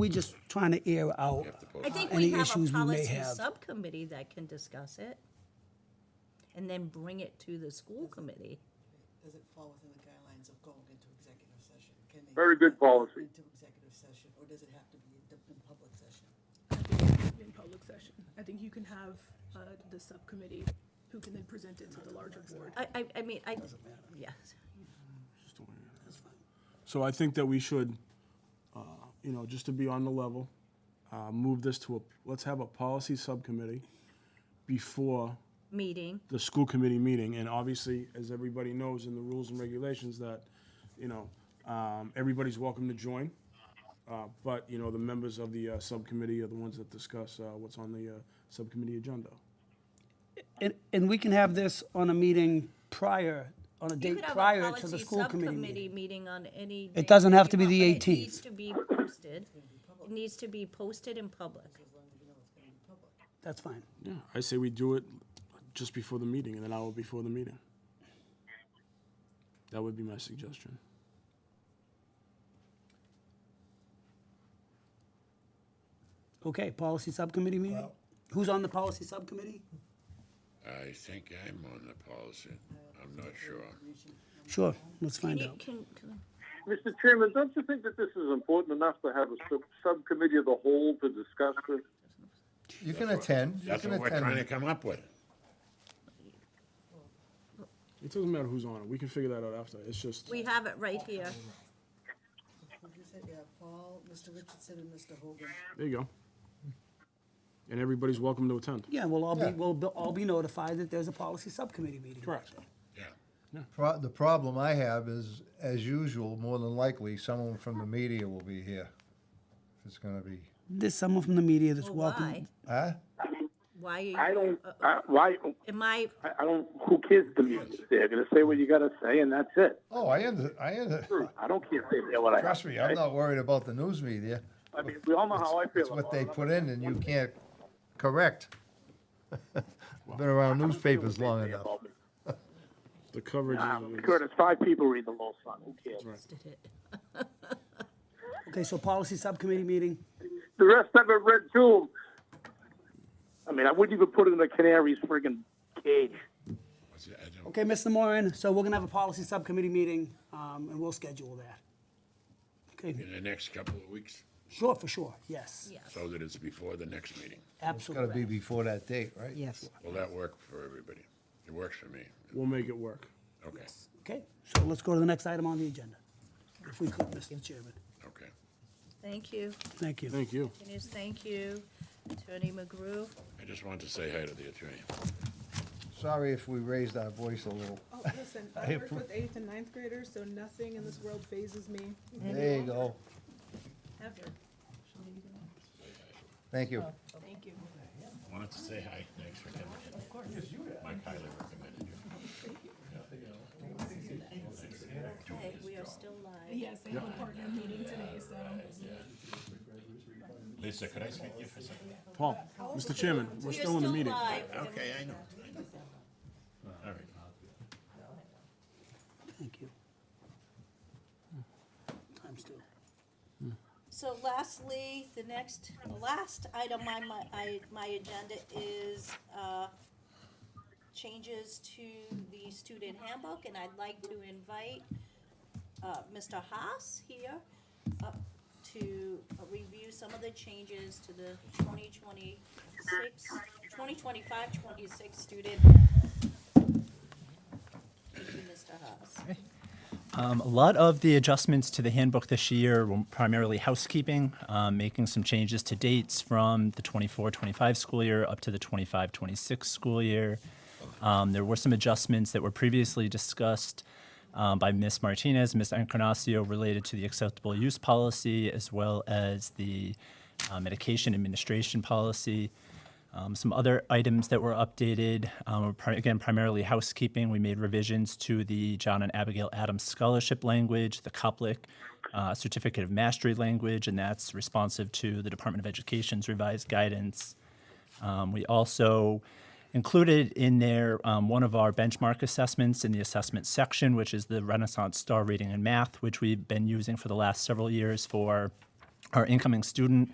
We're just trying to air out I think uh, we any have a issues we may policy have. subcommittee that can discuss it and then bring it to the school committee. Does it fall within the guidelines of going into executive session? Can they Very good policy. Into executive session, or does it have to be in in public session? I think in public session. I think you can have uh, the subcommittee who can then present it to the larger board. I, I, I mean, I, yes. So I think that we should, uh, you know, just to be on the level, uh, move this to a, let's have a policy subcommittee before Meeting, the school committee meeting, and obviously, as everybody knows in the rules and regulations, that, you know, um, everybody's welcome to join, uh, but, you know, the members of the uh, subcommittee are the ones that discuss uh, what's on the uh, subcommittee agenda. And, and we can have this on a meeting prior, on a You date could have a prior to the policy school committee subcommittee meeting. meeting on any. day It doesn't have you to be want, the but 18th. It needs to be posted. It needs to be posted in public. That's fine. Yeah, I say we do it just before the meeting, and an hour before the meeting. That would be my suggestion. Okay, policy subcommittee meeting? Who's on the policy subcommittee? I think I'm on the policy. I'm not sure. Sure, let's find You out. can, can- Mr. Chairman, don't you think that this is important enough to have a sub- subcommittee of the whole to discuss this? You can attend. You That's can what we're trying to attend. come up with. It doesn't matter who's on it, we can figure that out after, it's just, we have it right here. Who'd you say? Yeah, Paul, Mr. Richardson, and Mr. Hogan. there you go. And everybody's welcome to attend. Yeah, we'll all be, Yeah. we'll be- all be notified that there's a policy subcommittee meeting. Correct. Yeah. Pro- The problem I have is, as usual, more than likely, someone from the media will be here. It's gonna be, There's someone from the media that's Well, welcome. Oh, Why? huh? Why I are you, Uh, don't, Uh, I, why, am I, I I don't, who cares to me? They're gonna say what you gotta say and that's it. Oh, I under, I under, I don't care if they say what I have. trust me, to I'm say. not worried about the news media. I mean, we all know how I feel. It's what about they it. put in and you can't correct. Been around newspapers long enough. The coverage Uh, is- is, Curtis, five people read the law, son, who cares? did it? Okay, so policy subcommittee meeting, The rest of it read too. I mean, I wouldn't even put it in a canary's friggin' cage. What's it- I don't- Okay, Mr. Moran, so we're gonna have a policy subcommittee meeting, um, and we'll schedule that. Okay, In the next couple of weeks, sure, for sure, yes, Yes. so that it's before the next meeting. It's gotta absolutely. be before that date, right? Yes. Will that work for everybody? It works for me. we'll make it work. Okay, Okay, so let's go to the next item on the agenda, if we could, Mr. Chairman. okay. Thank you. Thank you. Thank you. Denise, thank you. Attorney McGrew. I just wanted to say hi to the attorney. Sorry if we raised our voice a little. Oh, listen, I worked with eighth and ninth graders, so nothing in this world phases me There you go. ever. Thank you. Thank you. Wanted to say hi. Thanks for coming in. Of course. Mike highly recommended you. Okay, we are still live. Yes, I have a partner meeting today, so. Lisa, could I speak to you for a second? Paul, Mr. Chairman, we're still in the meeting. Okay, I know. All right. Thank you. Time's two. So lastly, the next, the last item on my, I, my agenda is, uh, changes to the student handbook, and I'd like to invite, uh, Mr. Haas here up to review some of the changes to the 2026, 2025-26 student. handbook. Thank you, Mr. Haas. Um, a lot of the adjustments to the handbook this year were primarily housekeeping, um, making some changes to dates from the 24 25 school year up to the 25 26 school year. Um, there were some adjustments that were previously discussed um, by Ms. Martinez, Ms. Encarnacio, related to the acceptable use policy as well as the uh, medication administration policy. Um, some other items that were updated, um, were pri- again, primarily housekeeping. We made revisions to the John and Abigail Adams Scholarship language, the Coplick uh, Certificate of Mastery language, and that's responsive to the Department of Education's revised guidance. Um, we also included in there um, one of our benchmark assessments in the assessment section, which is the Renaissance Star Reading and Math, which we've been using for the last several years for Our incoming student